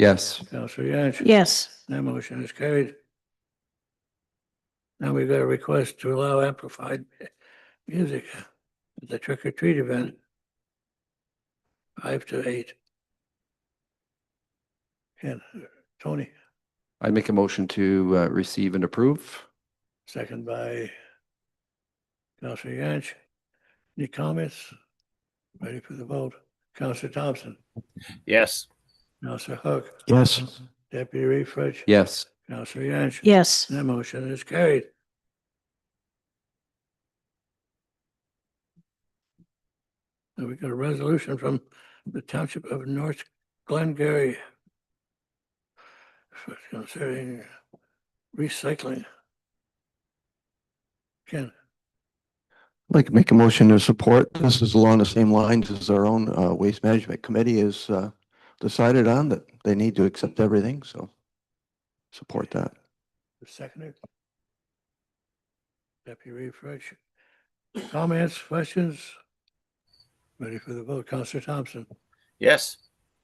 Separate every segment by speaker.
Speaker 1: Yes.
Speaker 2: Counselor Yance?
Speaker 3: Yes.
Speaker 2: That motion is carried. Now we've got a request to allow amplified music at the trick or treat event. Five to eight. And uh, Tony,
Speaker 1: I make a motion to uh, receive and approve.
Speaker 2: second by Counselor Yance. Any comments? Ready for the vote? Counselor Thompson,
Speaker 4: Yes.
Speaker 2: Counselor Hook,
Speaker 4: Yes.
Speaker 2: Deputy Refrich,
Speaker 1: Yes.
Speaker 2: Counselor Yance.
Speaker 3: Yes.
Speaker 2: That motion is carried. And we got a resolution from the Township of North Glengarry for concerning recycling. Ken,
Speaker 5: I'd like to make a motion to support. This is along the same lines as our own uh, Waste Management Committee has uh, decided on that they need to accept everything, so support that.
Speaker 2: the seconder. Deputy Refresh. Comments, questions? Ready for the vote. Counselor Thompson,
Speaker 4: Yes.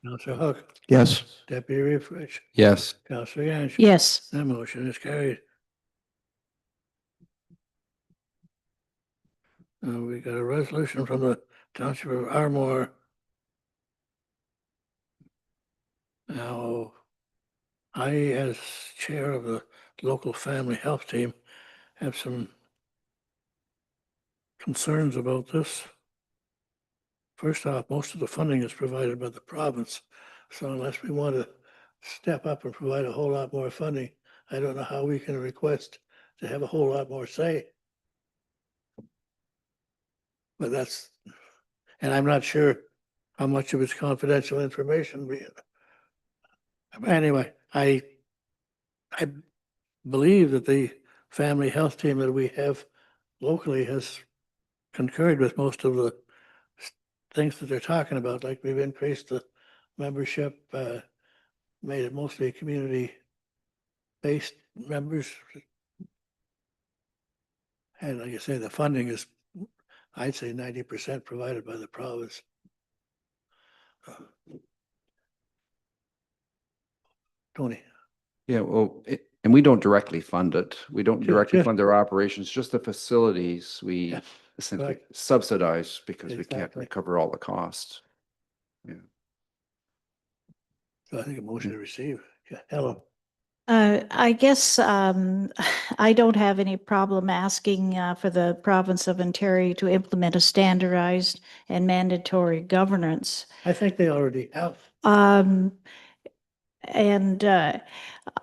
Speaker 2: Counselor Hook,
Speaker 5: Yes,
Speaker 2: Deputy Refresh,
Speaker 1: Yes.
Speaker 2: Counselor Yance.
Speaker 3: Yes.
Speaker 2: That motion is carried. Uh, we got a resolution from the Township of Armore. Now, I, as chair of the local family health team, have some concerns about this. First off, most of the funding is provided by the province, so unless we want to step up and provide a whole lot more funding, I don't know how we can request to have a whole lot more say. But that's, and I'm not sure how much of it's confidential information. we- Anyway, I, I believe that the family health team that we have locally has concurred with most of the s- things that they're talking about, like we've increased the membership, uh, made it mostly community based members. And like I say, the funding is, I'd say ninety percent provided by the province. Tony,
Speaker 1: Yeah. Well, it, and we don't directly fund it. We don't
Speaker 2: Ju-
Speaker 1: directly
Speaker 2: just-
Speaker 1: fund their operations, just the facilities we
Speaker 2: Yeah,
Speaker 1: essentially
Speaker 2: right.
Speaker 1: subsidize because we can't
Speaker 2: Exactly.
Speaker 1: recover all the costs.
Speaker 2: so I think a motion to receive, yeah, Helen,
Speaker 3: Uh, I guess, um, I don't have any problem asking, uh, for the province of Ontario to implement a standardized and mandatory governance.
Speaker 2: I think they already have.
Speaker 3: Um, and, uh,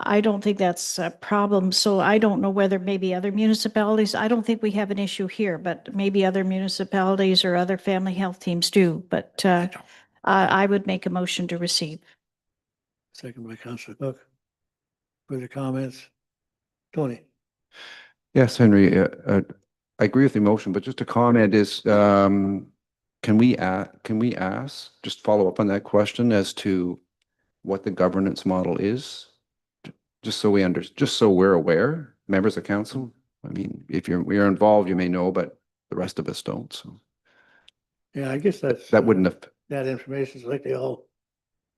Speaker 3: I don't think that's a problem. So I don't know whether maybe other municipalities, I don't think we have an issue here, but maybe other municipalities or other family health teams do. But, uh, I, I would make a motion to receive.
Speaker 2: Second by Counselor Cook. Further comments? Tony?
Speaker 1: Yes, Henry, uh, uh, I agree with the motion, but just a comment is, um, can we, a- can we ask, just follow up on that question as to what the governance model is? J- Just so we under, just so we're aware, members of council, I mean, if you're, we are involved, you may know, but the rest of us don't, so
Speaker 2: Yeah, I guess that's.
Speaker 1: that wouldn't have,
Speaker 2: That information is likely all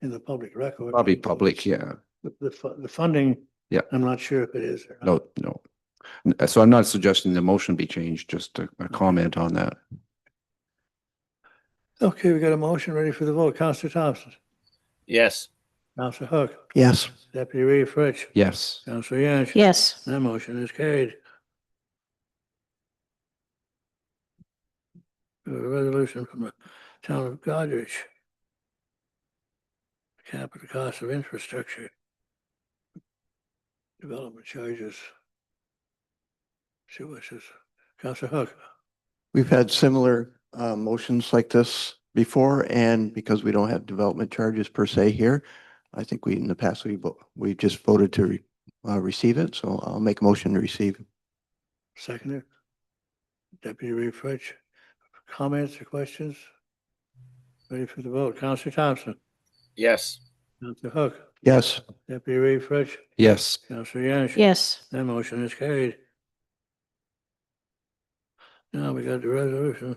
Speaker 2: in the public record.
Speaker 1: probably
Speaker 2: although
Speaker 1: public,
Speaker 2: it's-
Speaker 1: yeah,
Speaker 2: The, the fu- the funding.
Speaker 1: Yeah.
Speaker 2: I'm not sure if it is or not.
Speaker 1: no, no. N- So I'm not suggesting the motion be changed, just a, a comment on that.
Speaker 2: Okay, we got a motion ready for the vote. Counselor Thompson,
Speaker 4: Yes.
Speaker 2: Counselor Hook,
Speaker 5: yes.
Speaker 2: Deputy Reeve Fritz,
Speaker 1: Yes.
Speaker 2: Counselor Yance.
Speaker 3: Yes.
Speaker 2: That motion is carried. A resolution from the town of Goderich. Capital cost of infrastructure. Development charges. See what says, Counselor Hook,
Speaker 5: We've had similar uh, motions like this before, and because we don't have development charges per se here, I think we, in the past, we, vo- we just voted to re- uh, receive it, so I'll make a motion to receive.
Speaker 2: seconder. Deputy Reeve Fritz, comments or questions? Ready for the vote, Counselor Thompson,
Speaker 4: Yes.
Speaker 2: Counselor Hook,
Speaker 5: Yes,
Speaker 2: Deputy Reeve Fritz,
Speaker 1: Yes.
Speaker 2: Counselor Yance.
Speaker 3: Yes.
Speaker 2: That motion is carried. Now we got the resolution.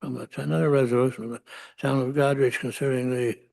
Speaker 2: From the- another resolution from the town of Godrich concerning the